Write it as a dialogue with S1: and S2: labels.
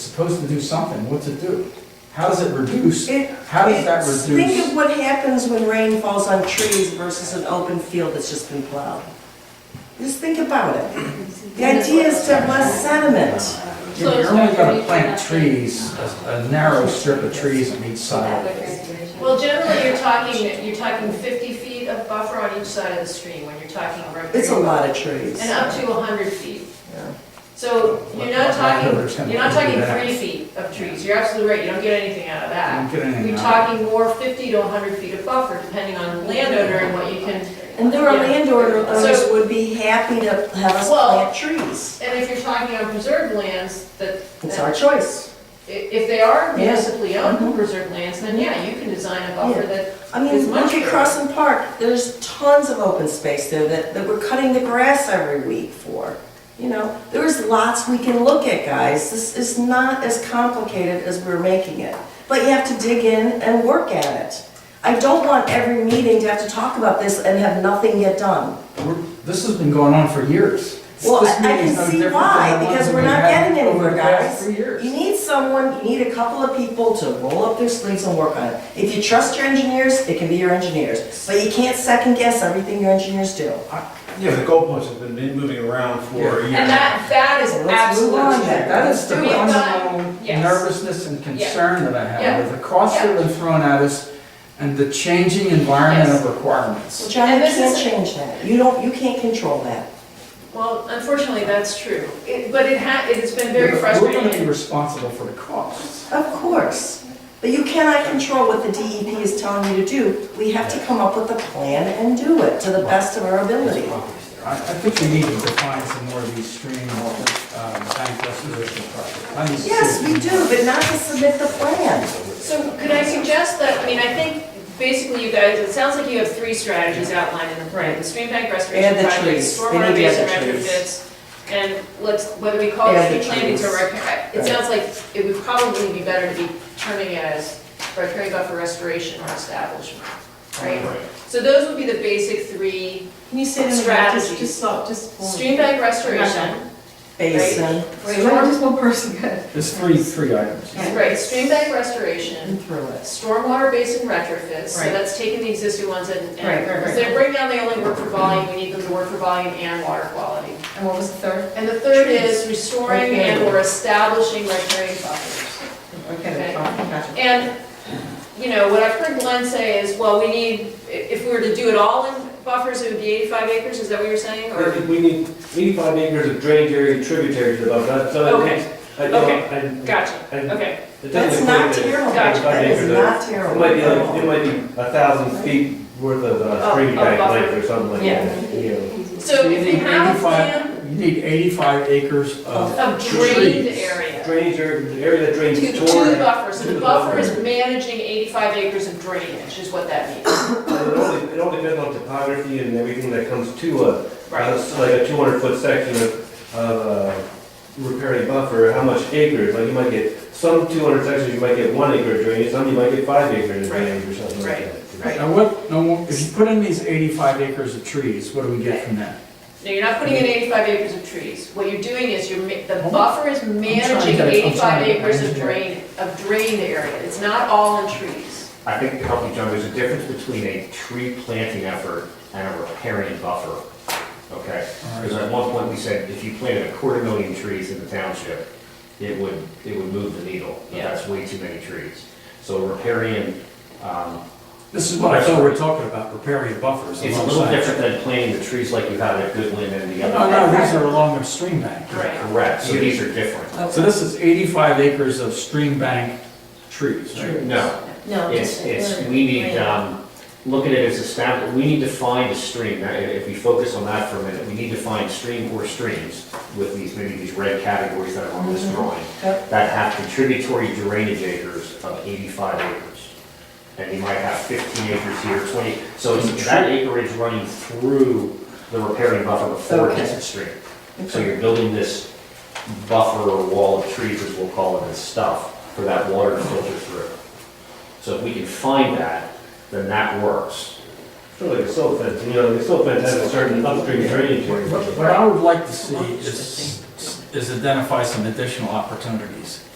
S1: supposed to do something, what's it do? How does it reduce?
S2: It-
S1: How does that
S2: it's- Think
S1: reduce?
S2: of what happens when rain falls on trees versus an open field that's just been plowed. Just think about it. The idea is to have less sediment.
S1: If You're only gonna plant trees, a a narrow strip of trees on each side of it.
S3: Well, generally, you're talking, you're talking 50 feet of buffer on each side of the stream when you're talking riparian.
S2: It's a lot of trees.
S3: And up to 100 feet.
S2: Yeah.
S3: So you're not talking,
S1: Landowners can
S3: you're not
S1: do
S3: talking
S1: that.
S3: three feet of trees, you're absolutely right, you don't get anything out of that.
S1: You don't get anything
S3: You're
S1: out
S3: talking more 50 to 100 feet of buffer, depending on the landowner and what you can.
S2: And there are landowners
S3: So-
S2: would be happy to have us
S3: Well-
S2: plant trees.
S3: And if you're talking on preserved lands, that,
S2: It's our choice.
S3: i- if they are
S2: Yeah.
S3: municipally owned
S2: Mhm.
S3: preserved lands, then yeah, you can design a buffer
S2: Yeah.
S3: that,
S2: I mean,
S3: It's
S2: look
S3: mushroom.
S2: at Crescent Park, there's tons of open space there that, that we're cutting the grass every week for. You know, there's lots we can look at, guys. This is not as complicated as we're making it. But you have to dig in and work at it. I don't want every meeting to have to talk about this and have nothing get done.
S1: We're- This has been going on for years.
S2: Well,
S1: This
S2: I I
S1: meeting's
S2: can
S1: no
S2: see
S1: different
S2: why,
S1: than the ones
S2: because
S1: that
S2: we're
S1: we've
S2: not
S1: had
S2: getting
S1: over
S2: anywhere,
S1: the past
S2: guys.
S1: Three years.
S2: You need someone, you need a couple of people to roll up their sleeves and work on it. If you trust your engineers, it can be your engineers, but you can't second guess everything your engineers do.
S4: Yeah, the goalposts have been moving around for a year.
S3: and that, that is
S2: Well, let's move
S3: absolutely.
S2: on
S3: true.
S2: then.
S1: That is the
S3: We've got-
S1: fundamental
S3: yes.
S1: nervousness and concern that I
S3: Yeah.
S1: have with the costs that have been thrown at us and the changing environment of
S2: Well,
S1: requirements.
S2: John, you
S3: And this
S2: can't
S3: is-
S2: change that. You don't, you can't control that.
S3: Well, unfortunately, that's true, It- but it ha, it has been very
S1: We're gonna be
S3: frustrating.
S1: responsible for the costs.
S2: Of course. But you cannot control what the DEP is telling you to do. We have to come up with a plan and do it to the best of our ability.
S1: I, I think we need to define some more of these stream, um, bank restoration projects. I need to see
S2: Yes,
S1: if
S2: we do, but not to submit the plan.
S3: So could I suggest that, I mean, I think basically you guys, it sounds like you have three strategies outlined in the plan. The stream bank restoration
S2: And the
S3: project,
S2: trees. They
S3: stormwater
S2: need to
S3: basin
S2: add the trees.
S3: retrofits, and let's, whether we call
S2: And
S3: it
S2: the
S3: tree plantings or
S2: trees.
S3: repair. It
S2: Right.
S3: sounds like it would probably be better to be terming it as riparian buffer restoration or establishment, right? So those would be the basic three,
S5: Can you say them again, just, just stop, just. one.
S3: stream bank restoration,
S2: Basin.
S5: Wait, why just one person good?
S1: There's three, three items.
S5: Right.
S3: right, stream bank restoration,
S2: And through it.
S3: stormwater basin retrofits, so
S5: Right.
S3: that's taking the existing ones and, and,
S5: Right, right, right.
S3: because they're right now, they only work for volume, we need them to work for volume and water quality.
S5: And what was the third?
S3: And the third is restoring
S5: Okay.
S3: and or establishing recreation buffers.
S5: Okay,
S3: Okay.
S5: the top, gotcha.
S3: And, you know, what I've heard Glenn say is, well, we need, i- if we were to do it all in buffers, it would be eighty-five acres, is that what you're saying,
S6: I
S3: or?
S6: think we need eighty-five acres of drainage area tributary to the buffer, that's, so I
S3: Okay.
S6: think- I don't-
S3: Okay.
S6: I-
S3: Gotcha,
S6: I-
S3: okay,
S6: it doesn't
S2: That's
S6: equate
S2: not
S6: to-
S2: terrible.
S3: Gotcha.
S2: That is not
S6: It might be
S2: terrible.
S6: like, it might be a thousand feet worth of
S3: Of-
S6: uh, stream
S3: of
S6: bank
S3: Oh, buffer.
S6: length or something like
S3: Yeah.
S6: that, you know.
S3: so if you
S1: need
S3: have a
S1: 85
S3: plan
S1: You need eighty-five acres of
S3: of drained
S1: trees.
S3: area,
S6: Drainage area, the area that
S3: to
S6: drains
S3: two
S6: toward, and
S3: buffers, so
S6: to
S3: the
S6: the
S3: buffer
S6: buffer.
S3: is managing eighty-five acres of drainage, is what that means,
S6: it only, it all depends on topography and everything that comes to a,
S3: right?
S6: That's Uh, like a two hundred foot section of, of, uh, repairing buffer, how much acres, like you might get, some two hundred sections, you might get one acre of drainage, some you might get five acres of
S3: Right.
S6: drainage or something like
S3: Right.
S6: that.
S3: Right.
S1: Now, what, now, if you put in these eighty-five acres of trees, what do we get from that?
S3: No, you're not putting in 85 acres of trees. What you're doing is you're, ma- the
S1: I'm-
S3: buffer is
S1: trying to
S3: managing
S1: get it- I'm
S3: 85
S1: trying to
S3: acres of
S1: manage it.
S3: drain, of drained area. It's not all in trees.
S7: I think to help you, John, there's a difference between a tree planting effort and a repairing buffer, okay? Because at one point, we said if you planted a quarter million trees in the township, it would, it would move the needle, but
S3: Yeah.
S7: that's way too many trees. So repairing, um,
S1: This is what I thought we were talking about, repairing buffers.
S7: it's a little
S1: alongside-
S7: different than planting the trees like you had at Goodwin and the
S1: No,
S7: other.
S1: no, these are along the stream bank.
S3: Right.
S7: Correct, so these are different.
S1: So this is 85 acres of stream bank trees, right?
S7: No,
S5: No.
S7: it's,
S5: just-
S7: it's, we need, um, look at it as established, we need to find a stream, Now, if if we focus on that for a minute, we need to find stream or streams with these, maybe these red categories that are on this drawing,
S2: Yep.
S7: that have contributory drainage acres of eighty-five acres. And you might have fifteen acres here, twenty, so it's that acreage running through the repairing buffer before it hits the stream. So you're building this buffer or wall of trees, as we'll call it, and stuff, for that water to filter through. So if we can find that, then that works.
S6: Sort of like a silt fence, you know, the silt fence has a certain upstream drainage area.
S1: What what I would like to see is, is identify some additional opportunities.